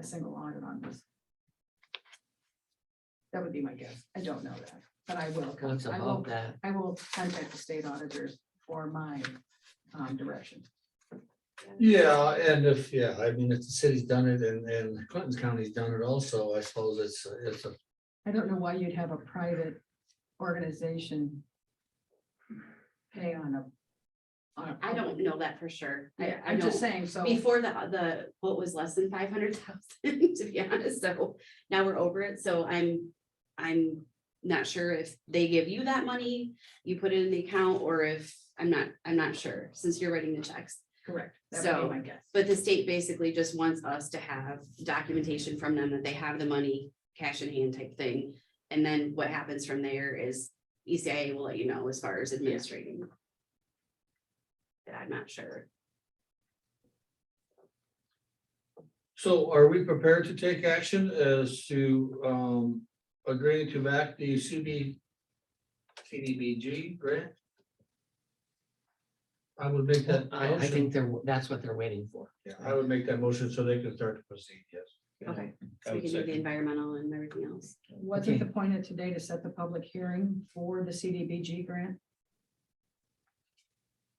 a single audit on this. That would be my guess. I don't know that, but I will. con- What's I will- above that? I will contact the state auditors for my um, direction. Yeah, and if, yeah, I mean, if the city's done it and, and Clinton's County's done it also, I suppose it's, it's a I don't know why you'd have a private organization pay on a. on a I don't know that for sure. I, Yeah, I I'm just don't, saying, so. before the, the, what was less than five hundred thousand, to be honest, so now we're over it, so I'm, I'm not sure if they give you that money, you put it in the account, or if, I'm not, I'm not sure, since you're writing the checks. Correct. That would So, be my guess. But the state basically just wants us to have documentation from them that they have the money, cash in hand type thing. And then what happens from there is E ECIA will let you know as far as administrating. But I'm not sure. So are we prepared to take action as to um agreeing to back the CB? CDBG grant? I would make that I, I motion, think they're, that's what they're waiting for. Yeah, I would make that motion so they can start to proceed, yes. Okay. I would So we can do the second. environmental and everything else. Wasn't the point of today to set the public hearing for the CDBG grant?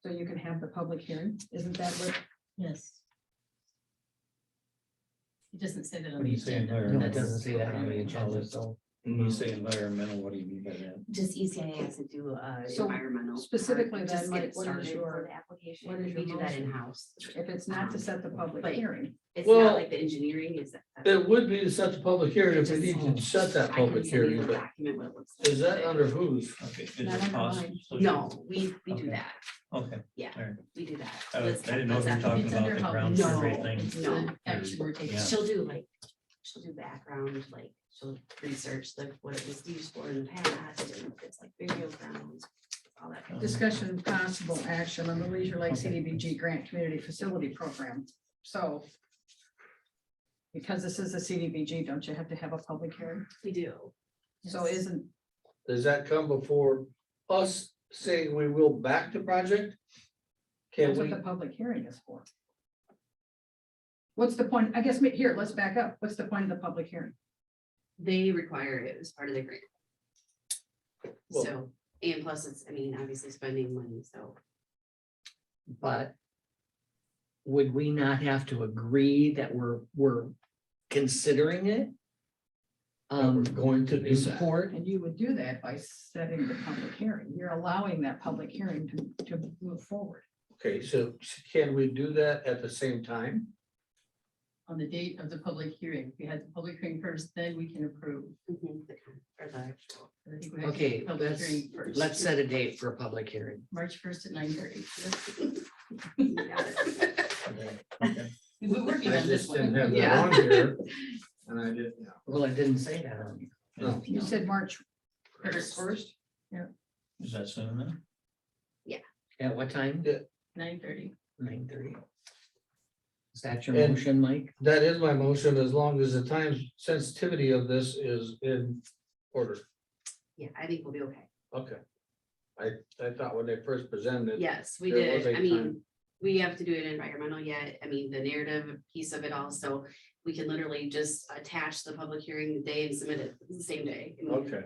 So you can have the public hearing, isn't that what, Yes. It doesn't say that on When the you say agenda. No, it environmental, doesn't say that on the Yeah. agenda, so. When you say environmental, what do you mean by that? Just ECIA has to do uh So environmental. part, specifically just then, get like, it what is started for your- the application. what is We your do that motion? in-house. if it's not to set the public Wait. hearing? It's Well, not like the engineering is. It would be to set the public hearing if we need to set that I can public send you hearing, the but Document what it looks like. is that under whose? Okay. is Not it cost? online. So- No, we we do Okay. that. Okay, We do that. I was- That's- I didn't know if you were that's talking It's under about the health. ground No. survey thing. It's the No. action we're taking. Yeah. She'll do like, she'll do background, like, she'll research like what it was used for in the past, and if it's like burial grounds, all that. kind of- Discussion and possible action on the Leisure Lake CDBG Grant Community Facility Program, so. Because this is a CDBG, don't you have to have a public hearing? We do. So Yes. isn't, Does that come before us saying we will back the project? Can that's what we, the public hearing is for? What's the point, I guess, ma- here, let's back up, what's the point of the public hearing? They require it as part of the grant. Well- So, and plus it's, I mean, obviously spending money, so But would we not have to agree that we're, we're considering it? That we're Um, going to do in that? support, And you would do that by setting the public hearing, you're allowing that public hearing to, to move forward. Okay, so can we do that at the same time? On the date of the public hearing, If we had the public hearing first, then we can approve. mhm, the con- or the actual. I think we have to Okay, do public let's- hearing first. let's set a date for a public hearing. March first at nine thirty. you got it. We were I working on this just didn't one. have Yeah. that on here. And I did, yeah. Well, it didn't say that on here. No. You said March First. first, Is that soon enough? At what time? Nine thirty. Nine thirty. Is that your And- motion, Mike? That is my motion, as long as the time sensitivity of this is in order. Yeah, I think we'll be okay. Okay. I, I thought when they first presented it, Yes, we There was did. a I mean, time- we have to do an environmental yet. I mean, the narrative piece of it also. We can literally just attach the public hearing the day and submit it the same day. I mean, okay.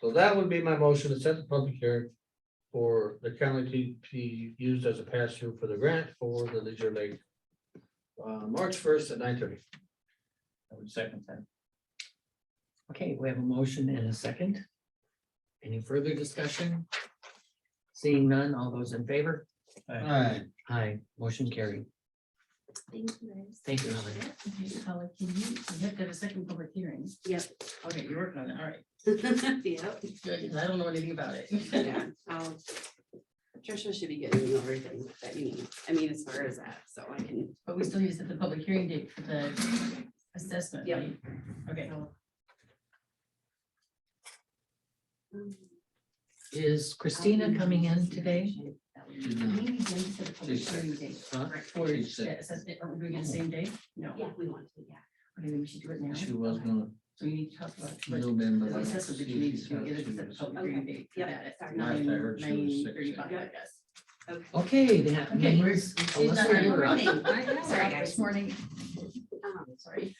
So that would be my motion to set the public hearing for the county to be used as a pass-through for the grant for the Leisure Lake. Uh, March first at nine thirty. I would second that. Okay, we have a motion and a second. Any further discussion? Seeing none, all those in favor? Aye. Uh, Aye, motion carried. Thank you guys. Thank you, Helen. Okay, Paula, can you, you have to have a second public hearing. Yep. Okay, you're working on it, all right. Yep, Good, 'cause I don't know anything about it. yeah. I'll- Tricia should be getting you everything that you need. I mean, as far as that, so I can. But we still use it the public hearing date for the assessment, Yep. right? Okay. Um, Is Christina coming in today? Maybe we can set the public She's hearing date Huh? for She's sick. the assessment. Are we doing it the same day? No. Yeah, we want to, yeah. Okay, then we should do it now. She was Okay. gonna. So we need to talk about. She'll be in the- The assessment that you need to do, get it set the public hearing Okay. date for Yep. that at Sorry. nine, Last I heard she was nine sick. thirty-five, I Yep. guess. Okay, that Okay, she's means. not Alyssa, here. you're up. I Sorry, got up guys. this morning, Um, sorry.